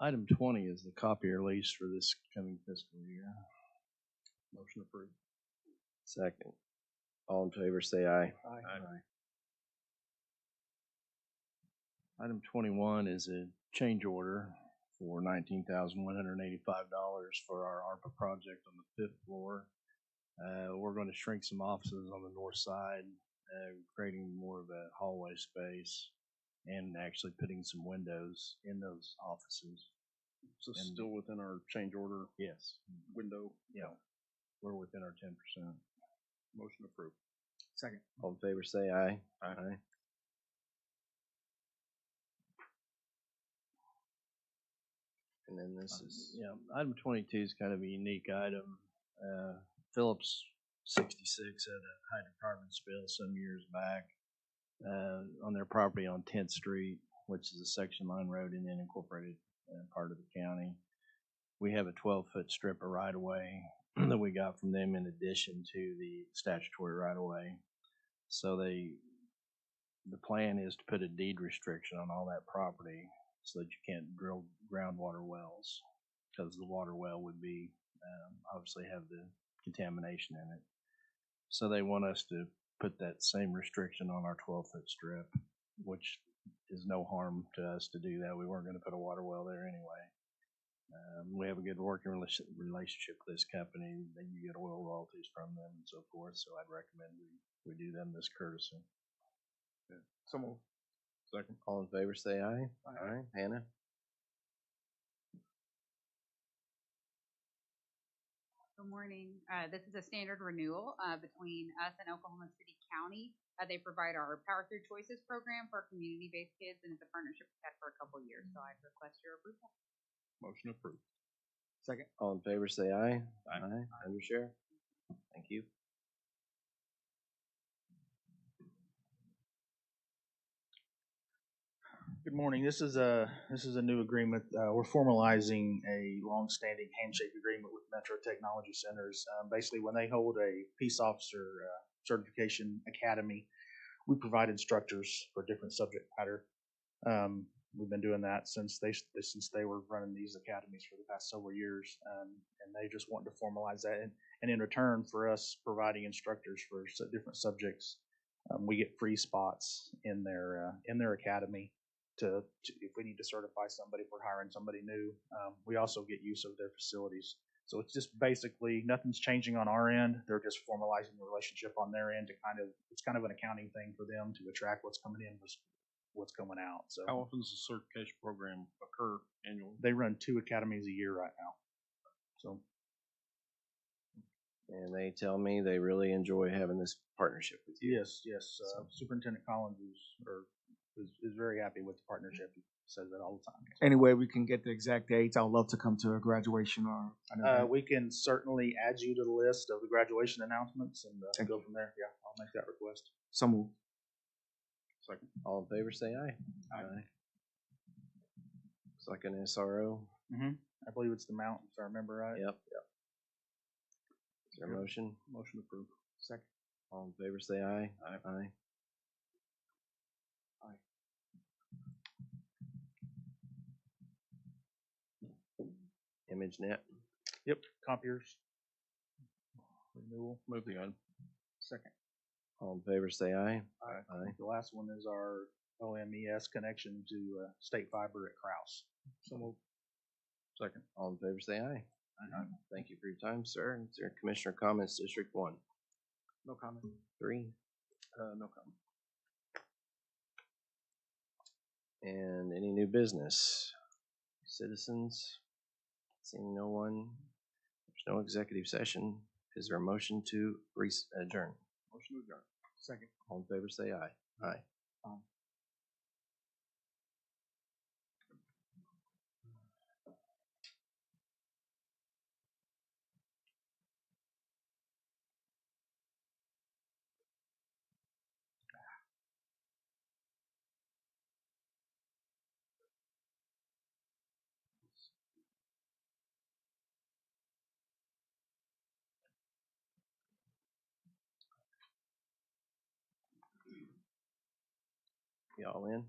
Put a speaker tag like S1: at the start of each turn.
S1: Item twenty is the copier lease for this coming fiscal year. Motion approved.
S2: Second. All in favor, say aye.
S1: Item twenty-one is a change order for nineteen thousand one hundred and eighty-five dollars for our ARPA project on the fifth floor. Uh, we're gonna shrink some offices on the north side, uh, creating more of a hallway space and actually putting some windows in those offices.
S3: So
S1: And-
S3: still within our change order
S1: Yes,
S3: window,
S1: yeah, we're within our ten percent.
S3: motion approved.
S1: Second.
S2: All in favor, say aye.
S3: Aye.
S2: And then this
S3: uh,
S1: Item-
S2: is,
S1: Yeah, Um, item twenty-two is kind of a unique item. Uh, Phillips sixty-six had a hydrocarbon spill some years back uh, on their property on Tenth Street, which is a section line road in an incorporated uh, part of the county. We have a twelve-foot strip of right-of-way that we got from them in addition to the statutory right-of-way. So they, the plan is to put a deed restriction on all that property so that you can't drill groundwater wells because the water well would be um, obviously have the contamination in it. So they want us to put that same restriction on our 12 foot strip, which is no harm to us to do that. We weren't going to put a water well there anyway. Um, we have a good working relation- relationship with this company. Then you get oil royalties from them and so forth. So I'd recommend we, we do them this courtesy.
S3: Someone. Second.
S2: all in favor, say aye. Aye. Hannah?
S4: Good morning. Uh, This is a standard renewal uh, between us and Oklahoma City County. Uh, They provide our Power Through Choices program for community-based kids, and it's a partnership we've had for a couple of years, so I request your approval.
S3: Motion approved.
S2: All in favor, say aye.
S3: Aye.
S2: Undersheriff? Thank you.
S5: Good morning. This is a, this is a new agreement. Uh, we're formalizing a longstanding handshake agreement with Metro Technology Centers. Um, basically, when they hold a peace officer uh, certification academy, we provide instructors for different subject matter. Um, we've been doing that since they, since they were running these academies for the past several years. Um, and they just wanted to formalize that. And, and in return for us providing instructors for s- different subjects, um, we get free spots in their, uh, in their academy to, to if we need to certify somebody, if we're hiring somebody new, um, we also get use of their facilities. So it's just basically nothing's changing on our end. They're just formalizing the relationship on their end to kind of it's kind of an accounting thing for them to attract what's coming in versus what's going out. So
S3: How often does the certification program occur annually?
S5: they run two academies a year right now. So
S2: And they tell me they really enjoy having this partnership with you.
S5: yes, yes, uh, Superintendent Collins is or is, is very happy with the partnership. He says that all the time.
S6: Anyway, we can get the exact dates. I'd love to come to a graduation or an
S5: Uh,
S6: event.
S5: we can certainly add you to the list of the graduation announcements and uh, go from there. Yeah, I'll make that request.
S6: So moved.
S3: Second.
S2: All in favor, say aye.
S5: Aye.
S2: It's like an SRO.
S5: I believe it's the mountain, if I remember right.
S2: Yep. Is there a motion?
S3: Motion approved.
S5: Second.
S2: All in favor, say aye. Aye. Aye. ImageNet,
S5: Yep. Copiers. Renewal.
S3: Move the item.
S5: Second.
S2: all in favor, say aye.
S5: Aye.
S2: Aye.
S5: The last one is our OMES connection to uh, State Fiber at Kraus. So we'll
S3: Second.
S2: All in favor, say aye. Aye. Thank you for your time, sir. Is there commissioner comments, District One?
S5: No comment.
S2: Three.
S3: Uh, no comment.
S2: And any new business? Citizens? Seeing no one, there's no executive session. Is there a motion to re- adjourn?
S3: Motion to adjourn.
S5: Second.
S2: All in favor, say aye. Aye. Y'all in?